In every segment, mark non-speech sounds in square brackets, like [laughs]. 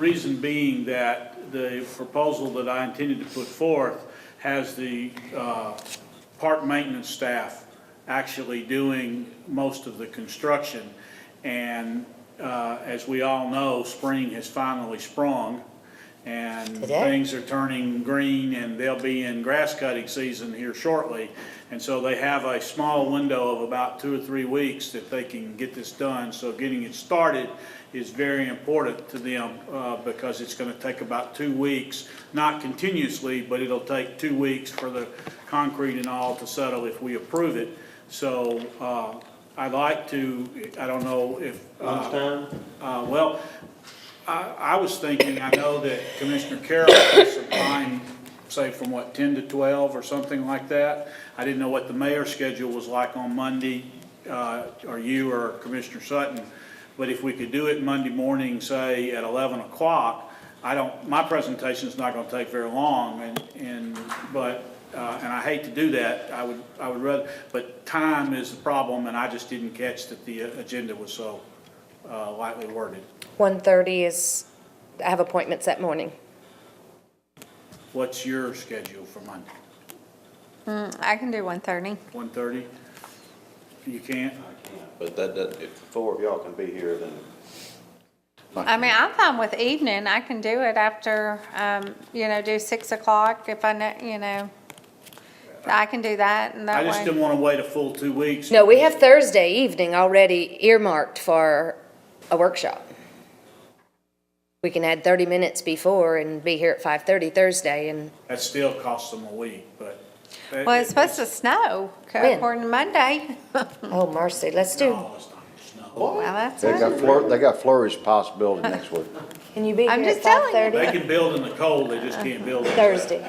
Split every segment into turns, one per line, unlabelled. Reason being that the proposal that I intended to put forth has the uh, park maintenance staff actually doing most of the construction. And uh, as we all know, spring has finally sprung, and
Today.
things are turning green, and they'll be in grass cutting season here shortly. And so they have a small window of about two or three weeks that they can get this done. So getting it started is very important to them, uh, because it's gonna take about two weeks, not continuously, but it'll take two weeks for the concrete and all to settle if we approve it. So, uh, I'd like to, I don't know if. uh, uh, Well, I, I was thinking, I know that Commissioner Carroll has some time, say from what, 10 to 12 or something like that. I didn't know what the mayor's schedule was like on Monday, uh, or you or Commissioner Sutton. But if we could do it Monday morning, say at 11 o'clock, I don't, my presentation's not gonna take very long and, and, but, uh, and I hate to do that. I would, I would rather, but time is the problem and I just didn't catch that the uh, agenda was so uh, lightly worded.
1:30 is, I have appointments that morning.
What's your schedule for Monday?
I can do one thirty.
One thirty? You can't?
But that, that, if the four of y'all can be here, then.
I mean, I'm fine with evening. I can do it after, um, you know, do six o'clock if I know, you know. I can do that and
I
that
just
way.
didn't wanna wait a full two weeks.
No, we have Thursday evening already earmarked for a workshop. We can add 30 minutes before and be here at 5:30 Thursday, and
That still costs them a week, but.
Well, it's supposed to snow
When?
according to Monday.
Oh, mercy, let's do,
No, it's not, it's not.
Well, that's
They
right.
got flour, they got flourish possibility
[laughs]
next week.
can you be here
I'm
at
just telling you.
5:30?
They can build in the cold, they just can't build. in the-
Thursday.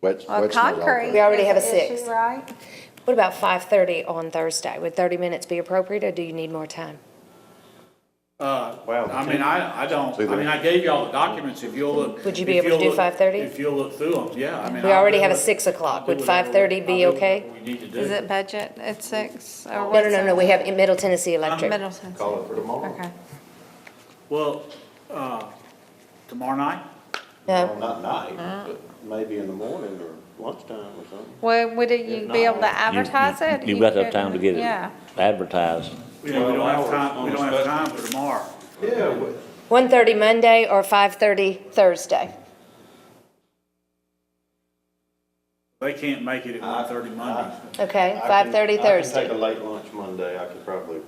Wet-
Well,
wet smells all
concrete.
We
good.
already
is
have a
the issue,
six.
Right?
What about 5:30 on Thursday? Would 30 minutes be appropriate, or do you need more time?
I mean, I, I don't, I mean, I gave y'all the documents, if you'll look.
Would you be
if
able to
you'll
do
look-
5:30?
If you'll look through them, yeah, I mean.
We
I'll
already
do
have a
what-
six o'clock.
I'll
Would
do whatever-
5:30 be
I'll do
okay?
what We need to do.
Is it budget at six or
No,
what's
no, no, no,
it?
we have Middle Tennessee Electric.
Middleton.
Call it for tomorrow.
Okay.
Well, uh, tomorrow night?
No,
Not night,
Uh-huh.
but maybe in the morning or lunchtime or something.
Well, would it- you be able to
You- you-
advertise it?
You've
You
got enough
could-
time to get
Yeah.
it advertised.
We don't we don't have
Twelve hours
time, we
on
don't have
special.
time for tomorrow.
Yeah, we-
1:30 Monday or 5:30 Thursday?
They can't make it at one thirty Monday.
Okay,
I can-
5:30
I can take
Thursday.
a late lunch Monday, I could probably,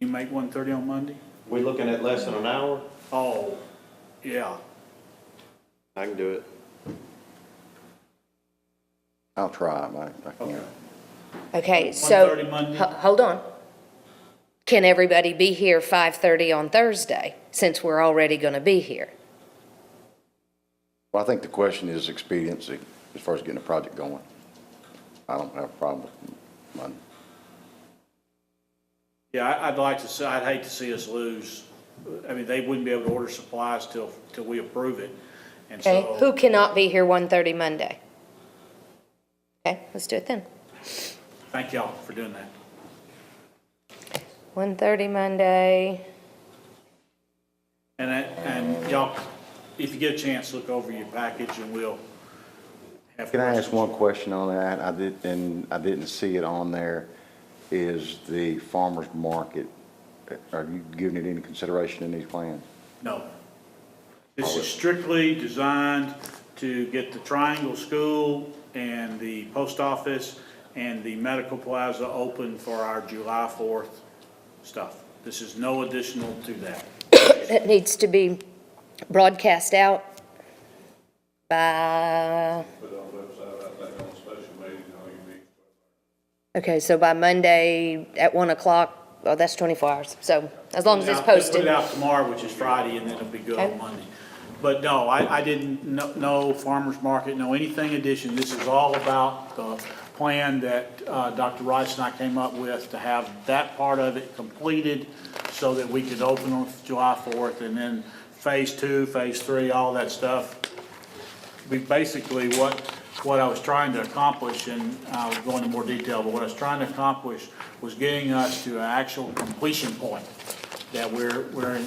You make one thirty on Monday?
we looking at less than an hour?
Oh, yeah.
I can do it.
I'll try, I, I can't.
Okay, so.
1:30 Monday?
Ho- Hold on. Can everybody be here 5:30 on Thursday, since we're already going to be here?
Well, I think the question is expediency, as far as getting a project going. I don't have a problem with Monday.
Yeah, I- I'd like to see, I'd hate to see us lose. I mean, they wouldn't be able to order supplies till, till we approve it. And
Okay, who
so,
cannot be here 1:30 Monday? Okay, let's do it then.
thank y'all for doing that.
1:30 Monday,
And, I- and y'all, if you get a chance, look over your package and we'll have.
Can I ask
questions.
one question on that? I did, and I didn't see it on there. Is the farmer's market, are you giving it any consideration in these plans?
No. This is strictly designed to get the Triangle School and the post office and the medical plaza open for our July 4th stuff. This is no additional to that.
that needs to be broadcast out by,
put it on the website, I think on special meeting, all you need.
okay, so by Monday at 1 o'clock, well, that's 24 hours, so as long as it's
Now, just
posted.
Put it out tomorrow, which is Friday, and then it'll be good
Okay.
on Monday. But no, I, I didn't, no- no farmer's market, no anything addition. This is all about the plan that uh, Dr. Rice and I came up with to have that part of it completed so that we could open on July 4th, and then phase two, phase three, all that stuff we basically, what, what I was trying to accomplish, and I will go into more detail, but what I was trying to accomplish was getting us to an actual completion point that we're, we're in